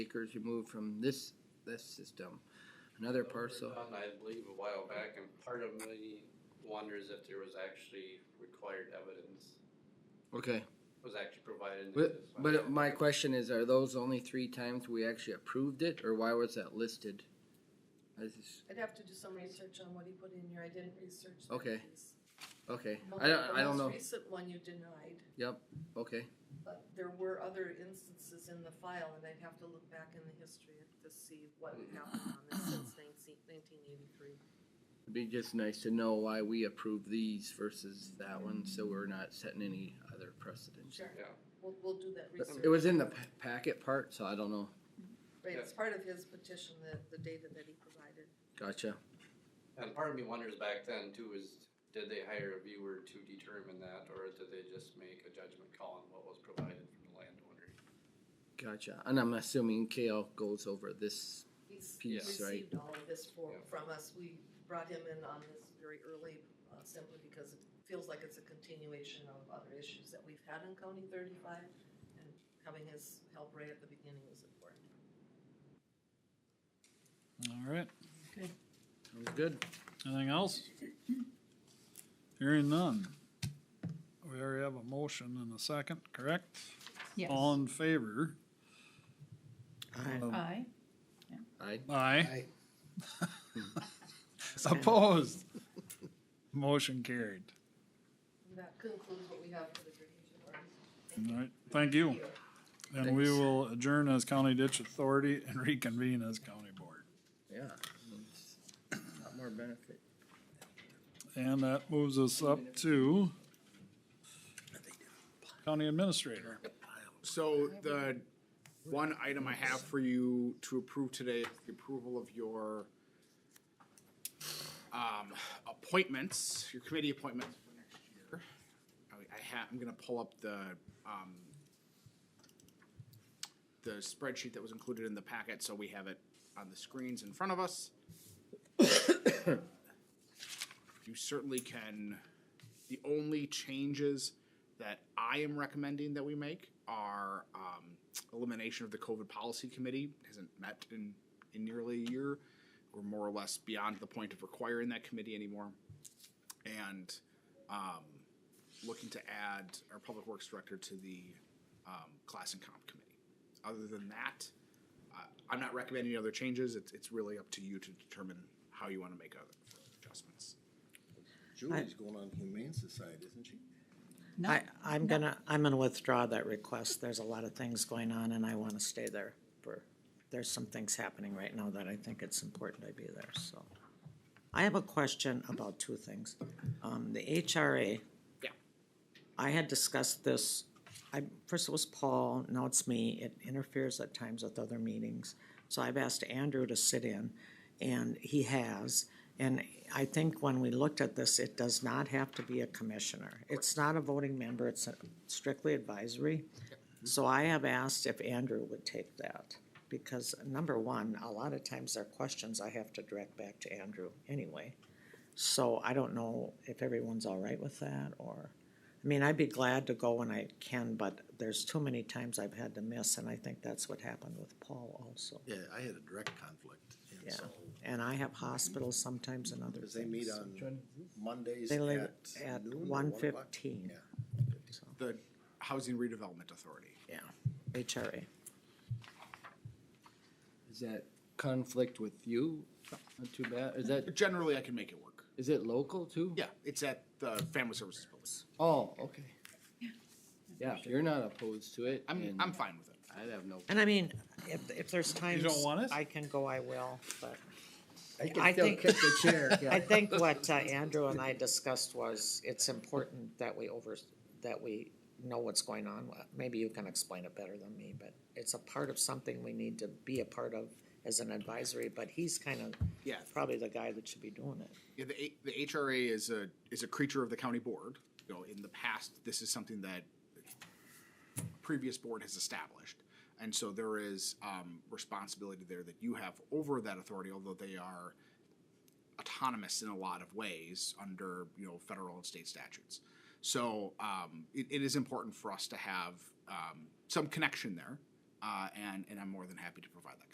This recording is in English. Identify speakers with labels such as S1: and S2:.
S1: acres removed from this, this system. Another parcel,
S2: I believe a while back, and part of me wonders if there was actually required evidence,
S1: okay.
S2: was actually provided. in the
S1: But,
S2: design.
S1: but my question is, are those only three times we actually approved it, or why was that listed? I just-
S3: I'd have to do some research on what he put in here, I didn't research that
S1: Okay.
S3: piece.
S1: okay, I don't, I don't
S3: The
S1: know,
S3: most recent one you denied,
S1: okay,
S3: but there were other instances in the file, and I'd have to look back in the history to see what happened on this since nineteen eighty-three.
S1: it'd be just nice to know why we approved these versus that one, so we're not setting any other precedents.
S3: Sure.
S2: Yeah.
S3: We'll, we'll do that
S1: But
S3: research.
S1: It was in the pa- packet part, so I don't know,
S3: Right, it's part of his petition, the, the data that he provided.
S1: gotcha,
S2: And part of me wonders back then too is, did they hire a viewer to determine that, or did they just make a judgment call on what was provided from the landowner?
S1: gotcha, and I'm assuming KL goes over this,
S3: He's
S1: Piece,
S3: received all of this for,
S2: Yeah.
S3: from us, we brought him in on this very early, uh, simply because it feels like it's a continuation of other issues that we've had in County thirty-five, and having his help right at the beginning was important.
S4: All right,
S1: sounds good,
S4: anything else? Hearing none. We already have a motion and a second, correct?
S5: Yes.
S4: All in favor? Aye.
S5: Aye.
S1: I,
S4: Aye. Opposed? Motion carried.
S3: And that concludes what we have for the drainage authority.
S4: All right, thank you.
S3: Thank you.
S4: And we
S1: Thanks.
S4: will adjourn as County Ditch Authority and reconvene as County Board.
S1: yeah, it's a lot more benefit.
S4: And that moves us up to County Administrator.
S6: So the one item I have for you to approve today is the approval of your um, appointments, your committee appointments for next year. I- I ha I'm gonna pull up the, um, the spreadsheet that was included in the packet, so we have it on the screens in front of us. You certainly can, the only changes that I am recommending that we make are um, elimination of the COVID policy committee hasn't met in, in nearly a year. We're more or less beyond the point of requiring that committee anymore. And um, looking to add our public works director to the um, class and comp committee. Other than that, uh, I'm not recommending any other changes. It's, it's really up to you to determine how you want to make other adjustments.
S7: Julie's going on Humane Society, isn't she?
S5: No,
S8: I, I'm gonna, I'm gonna withdraw that request. There's a lot of things going on and I wanna stay there for, there's some things happening right now that I think it's important I be there, so. I have a question about two things. Um, the HRA.
S6: Yeah.
S8: I had discussed this, I, first it was Paul, now it's me. It interferes at times with other meetings. So I've asked Andrew to sit in and he has. And I think when we looked at this, it does not have to be a commissioner. It's not a voting member, it's strictly advisory. So I have asked if Andrew would take that, because number one, a lot of times their questions I have to direct back to Andrew anyway. So I don't know if everyone's all right with that, or, I mean, I'd be glad to go when I can, but there's too many times I've had to miss, and I think that's what happened with Paul also.
S7: Yeah, I had a direct conflict, and
S8: Yeah.
S7: so,
S8: And I have hospitals sometimes and other
S7: because
S8: things.
S7: they meet on Mondays
S8: They
S7: at noon
S8: live
S7: or
S8: at
S7: one
S8: one
S7: o'clock.
S8: fifteen, so,
S6: The Housing Redevelopment Authority.
S8: yeah, HRA.
S1: Is that conflict with you? Not too bad, is that,
S6: Generally, I can make it work.
S1: is it local too?
S6: Yeah, it's at the Family Services Building.
S1: Oh, okay. Yeah, if you're not opposed to it,
S6: I'm,
S1: and
S6: I'm fine with it.
S1: I'd have no.
S8: And I mean, if, if there's times.
S4: want it?
S8: I can go, I will, but
S1: I
S8: I still think- kick
S1: the chair,
S8: I think what uh, Andrew and I discussed was, it's important that we over, that we know what's going on. Maybe you can explain it better than me, but it's a part of something we need to be a part of as an advisory, but he's kind of
S6: Yeah,
S8: probably the guy that should be doing it.
S6: Yeah, the, A- the HRA is a, is a creature of the county board. You know, in the past, this is something that previous board has established. And so there is, um, responsibility there that you have over that authority, although they are autonomous in a lot of ways under, you know, federal and state statutes. So, um, it, it is important for us to have, um, some connection there. uh, and and I'm more than happy to provide that